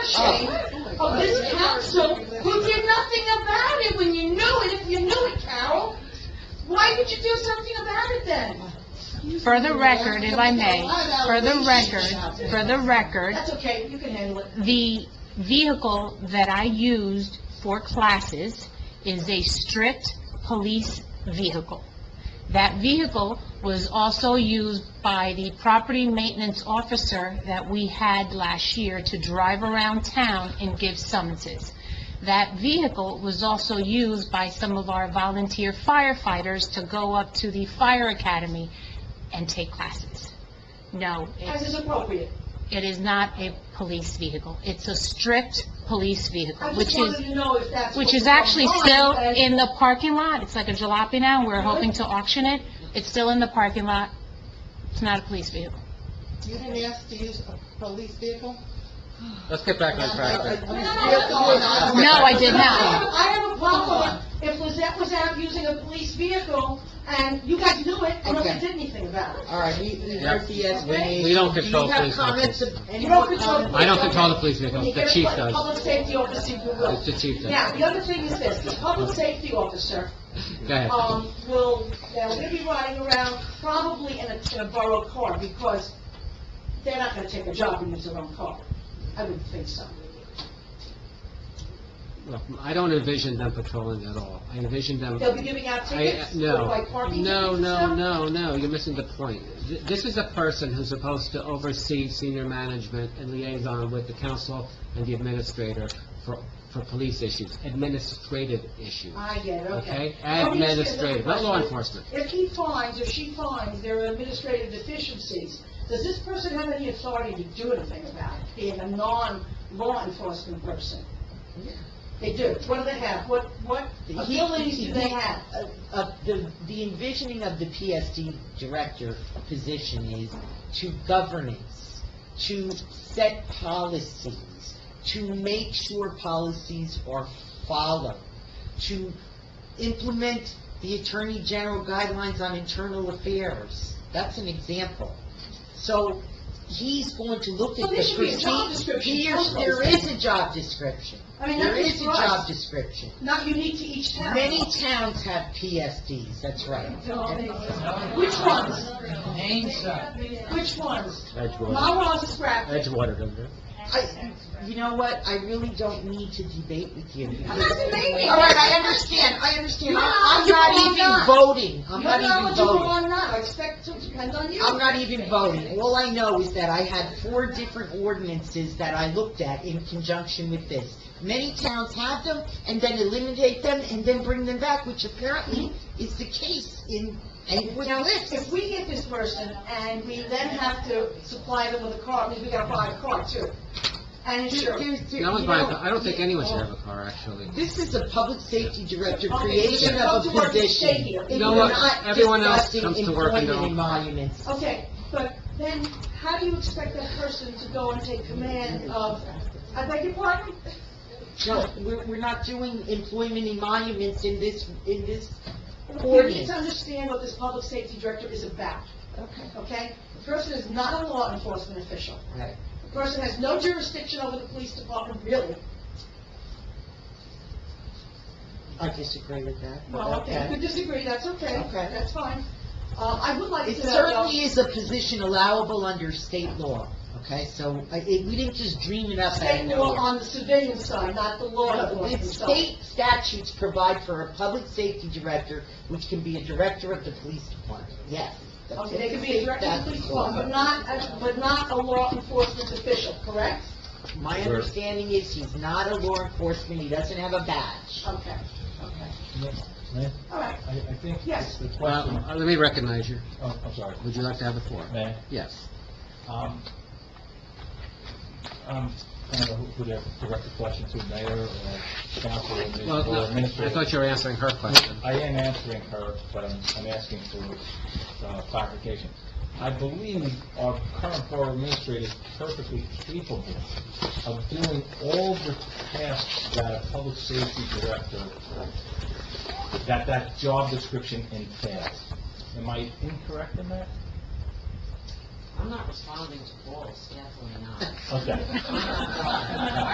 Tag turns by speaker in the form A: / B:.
A: attention of this council who did nothing about it when you knew it, if you knew it, Carol. Why did you do something about it then?
B: For the record, if I may, for the record, for the record,
A: That's okay, you can handle it.
B: the vehicle that I used for classes is a stripped police vehicle. That vehicle was also used by the property maintenance officer that we had last year to drive around town and give summonses. That vehicle was also used by some of our volunteer firefighters to go up to the fire academy and take classes. No, it's
A: As is appropriate.
B: it is not a police vehicle. It's a stripped police
A: I
B: vehicle,
A: just
B: which
A: wanted to
B: is,
A: Oh, know if that's.
B: which
A: what
B: is
A: was
B: actually
A: going on,
B: still
A: and-
B: in the parking lot. It's like a jalopy now, we're hoping to auction it. It's still in the parking lot. It's not a police vehicle.
C: You didn't ask to use a police vehicle?
D: Let's get back on track.
A: No, no,
D: No,
B: No, I did not.
A: I have a problem if Lizette was out using a police vehicle and you guys knew it and nobody
C: Okay.
A: did anything about it.
C: All right, he, he heard the
D: We
C: explanation.
D: we don't control police
C: comments?
D: vehicles.
A: You don't control-
D: I don't control the police vehicles,
A: You
D: the
A: get a
D: chief
A: pu-
D: does.
A: Public safety officer, you
D: It's
A: will.
D: the chief
A: Now,
D: does.
A: the other thing is this, the public safety officer,
D: Go ahead.
A: um, will, they're gonna be riding around probably in a, in a borrowed car because they're not gonna take a job and use their own car. I wouldn't think so.
D: Look, I don't envision them patrolling at all. I envision them...
A: They'll be giving out
D: I- uh,
A: tickets,
D: No,
A: or like parking tickets
D: no,
A: and
D: no,
A: stuff?
D: no, no, you're missing the point. Th- This is a person who's supposed to oversee senior management and liaison with the council and the administrator for, for police issues, administrative issues,
A: I get it, okay.
D: okay?
A: Let me ask you another
D: Administrative, not law
A: question.
D: enforcement.
A: If he finds, or she finds there are administrative deficiencies, does this person have any authority to do anything about it, being a non-law enforcement person? They do. What do they have? What, what
C: He-
A: abilities do they have?
C: Uh, uh, the, the envisioning of the PSD director position is to governance, to set policies, to make sure policies are followed, to implement the Attorney General guidelines on internal affairs. That's an example. So he's going to look at
A: Well,
C: the
A: there should be a job
C: procedure.
A: description.
C: Here's- There is a job description.
A: I mean,
C: There
A: that's
C: is a
A: for us.
C: job description.
A: Not unique to each town.
C: Many towns have PSDs, that's right.
A: Which ones? Which ones?
D: Edgewater,
A: Monroe's is scrappy.
D: Edgewater, don't they?
C: I, you know what, I really don't need to debate with you.
A: I'm not debating.
C: All right, I understand, I understand.
A: No,
C: I'm
A: you are
C: not even
A: not.
C: voting, I'm
A: You're
C: not even
A: knowledgeable
C: voting.
A: or not, I expect to depend on you.
C: I'm not even voting. All I know is that I had four different ordinances that I looked at in conjunction with this. Many towns have them, and then eliminate them, and then bring them back, which apparently is the case in, in with
A: Now,
C: this.
A: if we get this person and we then have to supply them with a car, because we gotta buy a car too, and insurance.
D: No one's buying, a car. I don't think anyone should have a car, actually.
C: This is a public safety director,
A: Okay,
C: creation
A: yeah.
C: of a
A: Come to work and stay
C: position.
A: here.
C: It
D: You know
C: is
D: what?
C: not
D: Everyone else
C: discussing
D: comes to work and
C: employment
D: don't-
C: emoluments.
A: Okay, but then how do you expect that person to go and take command of, I beg your pardon?
C: No, we're, we're not doing employment emoluments in this, in this
A: You need
C: ordinance.
A: to understand what this public safety director is about,
C: Okay.
A: okay? The person is not a law enforcement official.
C: Right.
A: The person has no jurisdiction over the police department, really.
C: I disagree with that. but
A: Well, okay, you could disagree, that's okay.
C: Okay.
A: That's fine. Uh, I would like
C: It
A: to know...
C: certainly is a position allowable under state law, okay? So, I, it, we didn't just dream it up out of
A: state law
C: nowhere.
A: on the civilian side, not the law
C: The
A: enforcement side.
C: state statutes provide for a public safety director, which can be a director of the police department, yes. that's
A: Okay,
C: it.
A: they could be a director of the
C: That's
A: police
C: the law.
A: department, but not, a- but not a law enforcement official, correct?
C: My understanding is he's not a law enforcement, he doesn't have a badge.
A: Okay, okay.
E: Ma'am?
A: All right,
E: I, I think
A: Yes.
E: it's the
D: Well,
E: question,
D: uh, let me recognize you.
E: oh, I'm sorry,
D: Would you like to have the floor?
E: May
D: Yes.
E: I? Um, um, I don't know who to direct the question to, mayor or council or admin-
D: Well,
E: or
D: no, I
E: administrator?
D: thought you were answering her question.
E: I am answering her, but I'm, I'm asking for uh, clarification. I believe our current borough administrator is perfectly capable of doing all the tasks that a public safety director, that that job description entails. Am I incorrect in that?
C: I'm not responding to calls, definitely not.
E: Okay.